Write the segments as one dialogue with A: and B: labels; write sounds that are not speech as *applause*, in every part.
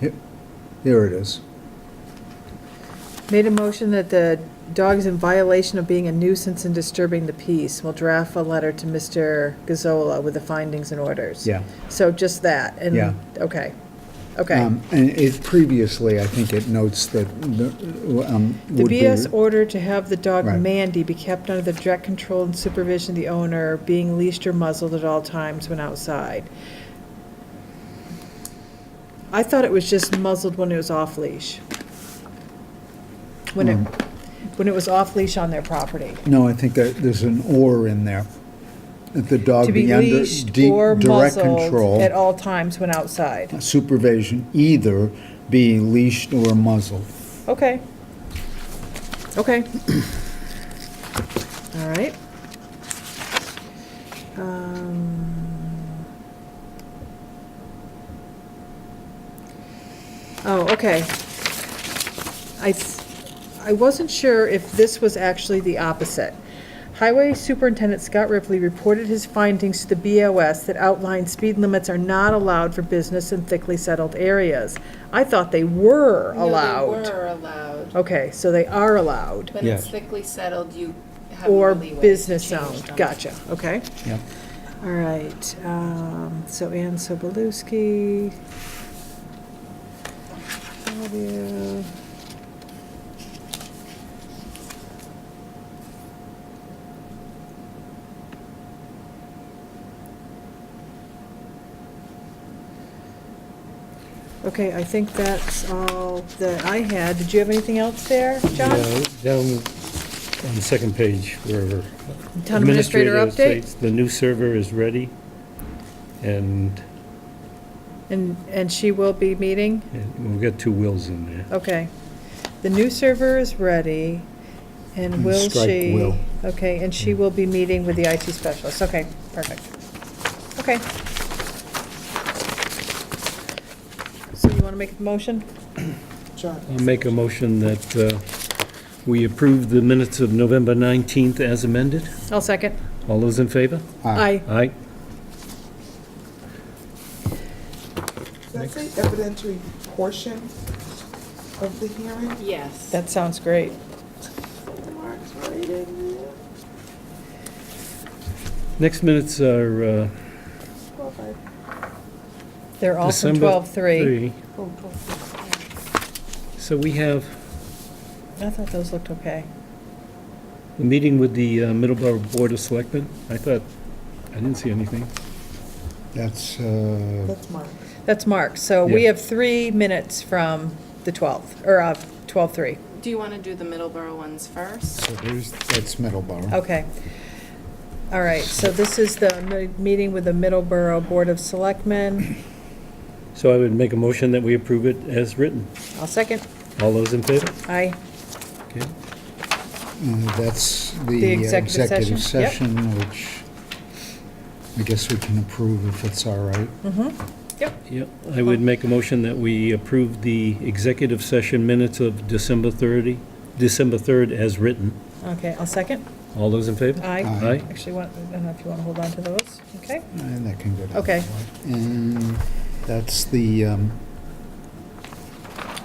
A: Here- Here it is.
B: Made a motion that the dog is in violation of being a nuisance and disturbing the peace. We'll draft a letter to Mr. Gazzola with the findings and orders.
A: Yeah.
B: So just that, and,
A: Yeah.
B: okay, okay.
A: Um, And it, previously, I think it notes that the, um,
B: The
A: would be-
B: BS order to have the dog
A: Right.
B: Mandy be kept under the direct control and supervision of the owner, being leashed or muzzled at all times when outside. I thought it was just muzzled when it was off-leash. When it,
A: Mm.
B: when it was off-leash on their property.
A: No, I think that there's an "or" in there. That the dog
B: To be
A: be under
B: leashed
A: de-
B: or
A: direct
B: muzzled at
A: control,
B: all times when outside.
A: supervision, either be leashed or muzzled.
B: Okay. Okay. All right. Um, Oh, okay. I, s- I wasn't sure if this was actually the opposite. Highway Superintendent Scott Ripley reported his findings to the BOS that outlined speed limits are not allowed for business in thickly settled areas. I thought they were
C: No,
B: allowed.
C: They were allowed,
B: Okay, so they are allowed,
C: when it's thickly settled, you have more
B: or
C: leeway to
B: business
C: change
B: owned,
C: them.
B: gotcha, okay.
A: Yep.
B: All right, um, so Ann Sobolewski. Claudia. Okay, I think that's all that I had. Did you have anything else there, John?
D: Yeah, Down on the second page, wherever.
B: Town administrator update?
D: states The new server is ready, and
B: And, and she will be meeting?
D: and we've got two wills in there.
B: Okay. The new server is ready, and
A: And
B: will
A: strike
B: she?
A: will.
B: Okay, and she will be meeting with the IT specialist. Okay, perfect. Okay. So you want to make a motion?
D: I'll make a motion that uh, we approve the minutes of November 19th as amended.
B: I'll second.
D: All those in favor?
A: Aye.
B: Aye.
D: Aye.
E: Does that say evidentiary portion of the hearing?
C: Yes.
B: That sounds great.
E: Mark's right in there.
D: Next minutes are uh,
E: Well, I-
B: They're all from
D: December
B: 12:3.
D: 3.
E: oh, oh, oh.
D: So we have
B: I thought those looked okay.
D: a meeting with the uh, Middleborough Board of Selectmen. I thought, I didn't see anything.
A: That's, uh,
E: That's Mark.
B: That's Mark. So we
D: Yeah.
B: have three minutes from the 12th, or uh, of 12:3.
C: Do you want to do the Middleborough ones first?
A: so there's, that's Middleborough.
B: Okay. All right, so this is the mi- meeting with the Middleborough Board of Selectmen.
D: So I would make a motion that we approve it as written.
B: I'll second.
D: All those in favor?
B: Aye.
D: Okay.
A: Uh, That's
B: The
A: the uh,
B: executive
A: executive
B: session,
A: session, which I guess we can approve if it's all right.
B: Mm-hmm.
D: Yeah, I would make a motion that we approve the executive session minutes of December 30, December 3rd as written.
B: Okay, I'll second.
D: All those in favor?
B: Aye.
A: Aye.
D: Aye?
B: Actually, want- I don't know if you want to hold on to those. Okay,
A: And that can go down.
B: Okay.
A: And that's the, um,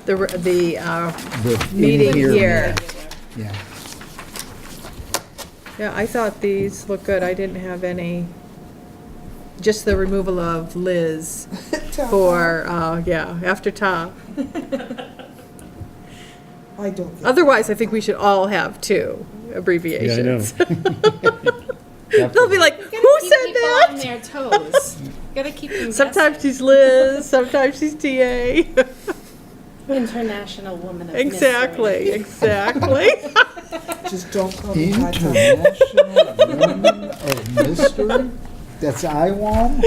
B: the, re- the, uh,
A: the. in
B: Meeting here.
A: Yeah. *laughs*
B: yeah, I thought these looked good. I didn't have any, just the removal of *laughs* Liz
E: Tell
B: for, uh, yeah, after Ta.
E: Mark. I don't get it.
B: Otherwise, I think we should all have two
D: Yeah, I *laughs* know.
B: abbreviations. *laughs* They'll be like, who
C: Keep
B: said
C: people
B: that?
C: on their toes. Got to keep them
B: Sometimes
C: guessing.
B: she's Liz, sometimes she's TA.
C: International woman of mystery.
B: *laughs* Exactly, exactly.
E: Just don't call me high top.
A: International Women of Mystery? Oh, That's IWOM?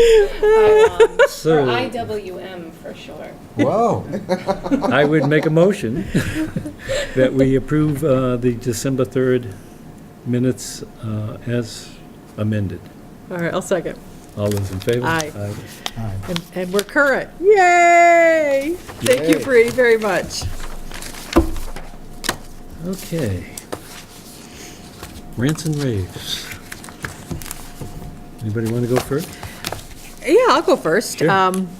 C: IWM, Or
D: So
C: IWM for short.
A: Whoa.
D: I would make a motion *laughs* that we approve uh, the December 3rd minutes uh, as amended.
B: All right, I'll second.
D: All those in favor?
B: Aye.
A: All right.
B: And, and we're current. Yay! Thank you,
A: Yay.
B: Bree, very much.
D: Okay. Rants and raves. Anybody want to go first?
B: Yeah, I'll go first.
D: Sure.
B: Um,